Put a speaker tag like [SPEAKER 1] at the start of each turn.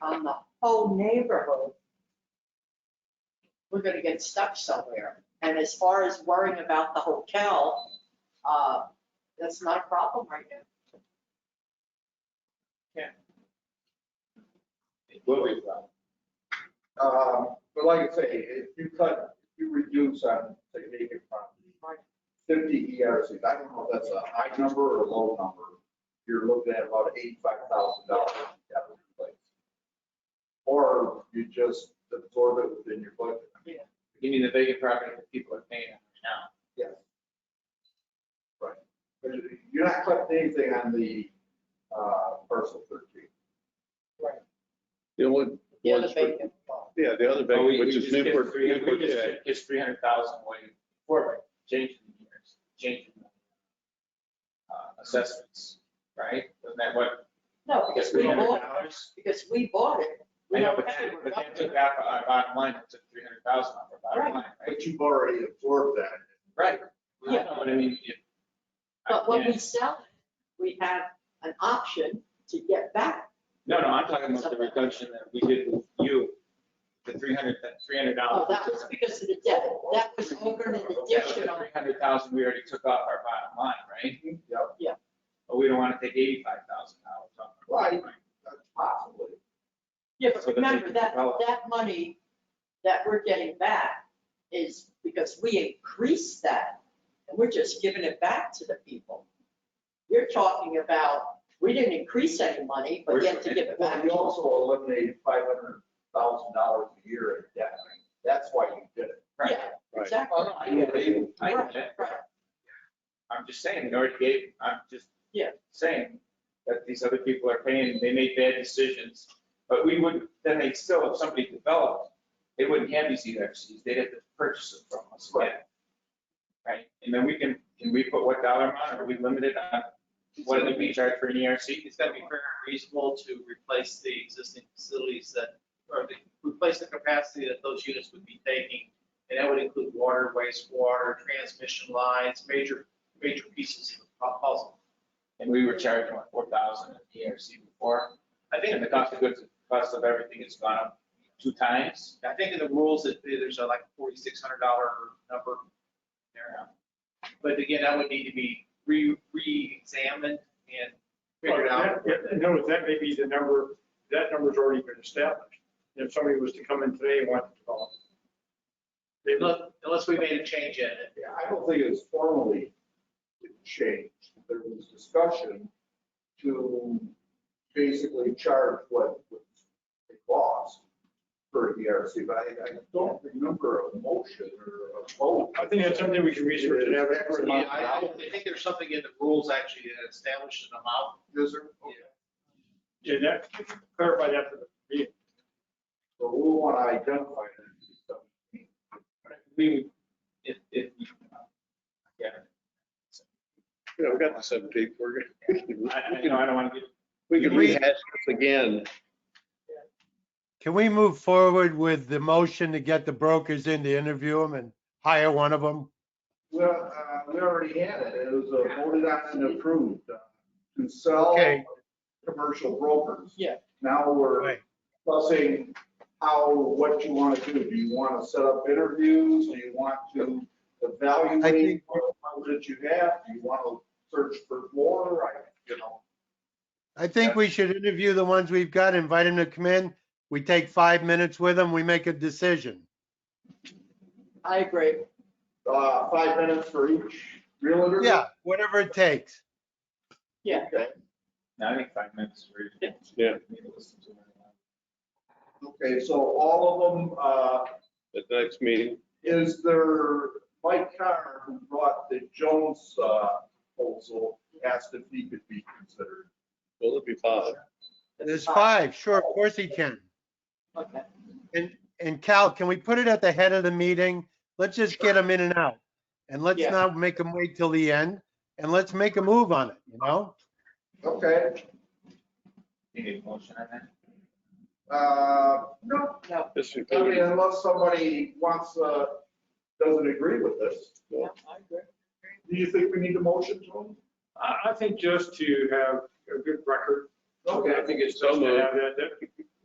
[SPEAKER 1] on the whole neighborhood, we're gonna get stuck somewhere. And as far as worrying about the hotel, uh, that's not a problem right now.
[SPEAKER 2] It will be a problem.
[SPEAKER 3] Um, But like I say, if you cut, if you reduce on, say, vacant property, fifty ERCs, I don't know if that's a high number or a low number. You're looking at about eighty-five thousand dollars that would replace. Or you just absorb it within your budget.
[SPEAKER 2] You mean the vacant property that people are paying?
[SPEAKER 3] Yes. Right. But you- You're not cutting anything on the uh, parcel thirteen.
[SPEAKER 4] The only,
[SPEAKER 1] Yeah,
[SPEAKER 4] Well,
[SPEAKER 1] the
[SPEAKER 4] it's for-
[SPEAKER 1] vacant lot.
[SPEAKER 4] yeah, the other
[SPEAKER 2] Oh,
[SPEAKER 4] bank,
[SPEAKER 2] we- we
[SPEAKER 4] which is
[SPEAKER 2] just get
[SPEAKER 4] Newport,
[SPEAKER 2] three-
[SPEAKER 4] Newport,
[SPEAKER 2] We just
[SPEAKER 4] yeah.
[SPEAKER 2] get- gets three hundred thousand away for changing the years, changing the uh, assessments, right? Isn't that what,
[SPEAKER 1] No,
[SPEAKER 2] I guess
[SPEAKER 1] because
[SPEAKER 2] three
[SPEAKER 1] we
[SPEAKER 2] hundred
[SPEAKER 1] bought,
[SPEAKER 2] dollars?
[SPEAKER 1] because we bought it. We
[SPEAKER 2] I know,
[SPEAKER 1] don't
[SPEAKER 2] but
[SPEAKER 1] pay,
[SPEAKER 2] that,
[SPEAKER 1] we're
[SPEAKER 2] but
[SPEAKER 1] not
[SPEAKER 2] that took
[SPEAKER 1] paying.
[SPEAKER 2] out our bottom line, it took three hundred thousand off our bottom line, right?
[SPEAKER 3] But you've already absorbed that.
[SPEAKER 2] Right. Yeah, but I mean, if. I
[SPEAKER 1] But when we
[SPEAKER 2] can't-
[SPEAKER 1] sell it, we have an option to get back.
[SPEAKER 2] No, no, I'm talking about the reduction that we did with you, the three hundred, three hundred
[SPEAKER 1] Oh,
[SPEAKER 2] dollars.
[SPEAKER 1] that was because of the debt. That was over an additional.
[SPEAKER 2] Three hundred thousand, we already took off our bottom line, right?
[SPEAKER 3] Yep.
[SPEAKER 2] But we don't want to take eighty-five thousand dollars off. our bottom line.
[SPEAKER 3] That's Possibly.
[SPEAKER 1] Yeah, but
[SPEAKER 2] So that they
[SPEAKER 1] remember
[SPEAKER 2] can
[SPEAKER 1] that,
[SPEAKER 2] develop.
[SPEAKER 1] that money that we're getting back is because we increased that and we're just giving it back to the people. You're talking about, we didn't increase any money, but
[SPEAKER 2] We're
[SPEAKER 1] yet to
[SPEAKER 2] sure.
[SPEAKER 1] give it
[SPEAKER 3] Well,
[SPEAKER 1] back.
[SPEAKER 3] you also eliminated five hundred thousand dollars a year in debt. That's why you did it.
[SPEAKER 2] Right.
[SPEAKER 1] Yeah,
[SPEAKER 4] Right.
[SPEAKER 1] exactly.
[SPEAKER 2] Oh, no, I get it. I get it.
[SPEAKER 1] Right.
[SPEAKER 2] I'm just saying, we already gave, I'm just
[SPEAKER 1] Yeah.
[SPEAKER 2] saying that these other people are paying, they make bad decisions. But we wouldn't, then they still, if somebody developed, they wouldn't have these ERCs, they'd have to purchase them from us again. Right? And then we can, can we put what dollar amount, are we limited on what did we charge for an E ERC?
[SPEAKER 5] It's gotta be fair and reasonable to replace the existing facilities that, or to replace the capacity that those units would be taking. And that would include water, wastewater, transmission lines, major, major pieces of the puzzle.
[SPEAKER 2] And we were charging like four thousand at the ERC before. I think the cost of goods, cost of everything has gone up two times.
[SPEAKER 5] I think in the rules, that there's a like forty-six hundred dollar number there. But again, that would need to be re, re-examined and figured out.
[SPEAKER 6] No, that may be the number, that number's already been established. If somebody was to come in today and want to develop. They
[SPEAKER 5] Unless, unless we made a change in it.
[SPEAKER 3] Yeah, I don't think it was formally changed. There was discussion to basically charge what was it cost for the ERC, but I, I don't remember a motion or a vote.
[SPEAKER 6] I think that's something we can research and have an expert
[SPEAKER 5] Yeah,
[SPEAKER 6] on.
[SPEAKER 5] I, I think there's something in the rules actually that establishes an amount.
[SPEAKER 3] Is there? Okay.
[SPEAKER 6] Yeah, that, clarify that for the meeting.
[SPEAKER 3] So we want to identify that.
[SPEAKER 2] We, if, if. Yeah.
[SPEAKER 4] Yeah, we got the seventeenth, we're gonna,
[SPEAKER 2] I, I- you know, I don't want to get
[SPEAKER 4] we can rehash this again.
[SPEAKER 7] Can we move forward with the motion to get the brokers in to interview them and hire one of them?
[SPEAKER 3] Well, uh, we already had it. It was uh, voted on and approved uh, to sell
[SPEAKER 7] Okay.
[SPEAKER 3] commercial brokers.
[SPEAKER 1] Yeah.
[SPEAKER 3] Now we're
[SPEAKER 7] Right.
[SPEAKER 3] discussing how, what you want to do. Do you want to set up interviews? Do you want to
[SPEAKER 7] I
[SPEAKER 3] evaluate
[SPEAKER 7] think-
[SPEAKER 3] what that you have? Do you want to search for more? I, you know,
[SPEAKER 7] I think we should interview the ones we've got, invite them to come in. We take five minutes with them, we make a decision.
[SPEAKER 1] I agree.
[SPEAKER 3] uh, five minutes for each realtor?
[SPEAKER 7] Yeah, whatever it takes.
[SPEAKER 3] Okay.
[SPEAKER 2] No, I think five minutes is reasonable.
[SPEAKER 4] Yeah.
[SPEAKER 2] Maybe listen to it.
[SPEAKER 3] Okay, so all of them, uh,
[SPEAKER 4] At the next meeting,
[SPEAKER 3] is there, Mike Carr, who brought the Jones uh, proposal, asked if he could be considered.
[SPEAKER 4] will it be five?
[SPEAKER 7] There's five, sure, of course he can.
[SPEAKER 1] Okay.
[SPEAKER 7] And, and Cal, can we put it at the head of the meeting? Let's just get them in and out. And let's
[SPEAKER 1] Yeah.
[SPEAKER 7] not make them wait till the end, and let's make a move on it, you know?
[SPEAKER 3] Okay,
[SPEAKER 2] You need a motion on that?
[SPEAKER 3] uh, no,
[SPEAKER 4] This is-
[SPEAKER 3] I mean, unless somebody wants, uh, doesn't agree with this.
[SPEAKER 1] Yeah, I agree.
[SPEAKER 3] Do you think we need a motion to
[SPEAKER 6] I, I think just to have a good record.
[SPEAKER 3] them? Okay,
[SPEAKER 6] think
[SPEAKER 4] so
[SPEAKER 6] Just to
[SPEAKER 4] moved.
[SPEAKER 6] have that, that,